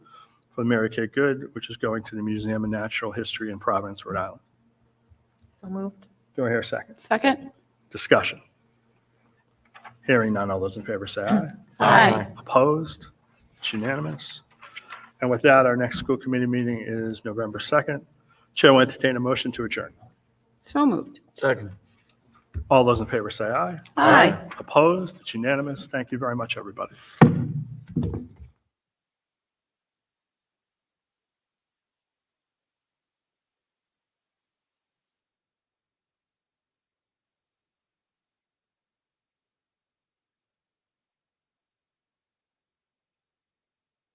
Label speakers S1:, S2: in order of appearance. S1: for Mary Kay Good, which is going to the Museum of Natural History in Providence, Rhode Island.
S2: So moved.
S1: Do I hear a second?
S3: Second?
S1: Discussion. Hearing none, all those in favor say aye.
S3: Aye.
S1: Opposed? It's unanimous. And with that, our next school committee meeting is November 2nd. Chair will entertain a motion to adjourn.
S3: So moved.
S4: Second.
S1: All those in favor say aye.
S3: Aye.
S1: Opposed? It's unanimous. Thank you very much, everybody.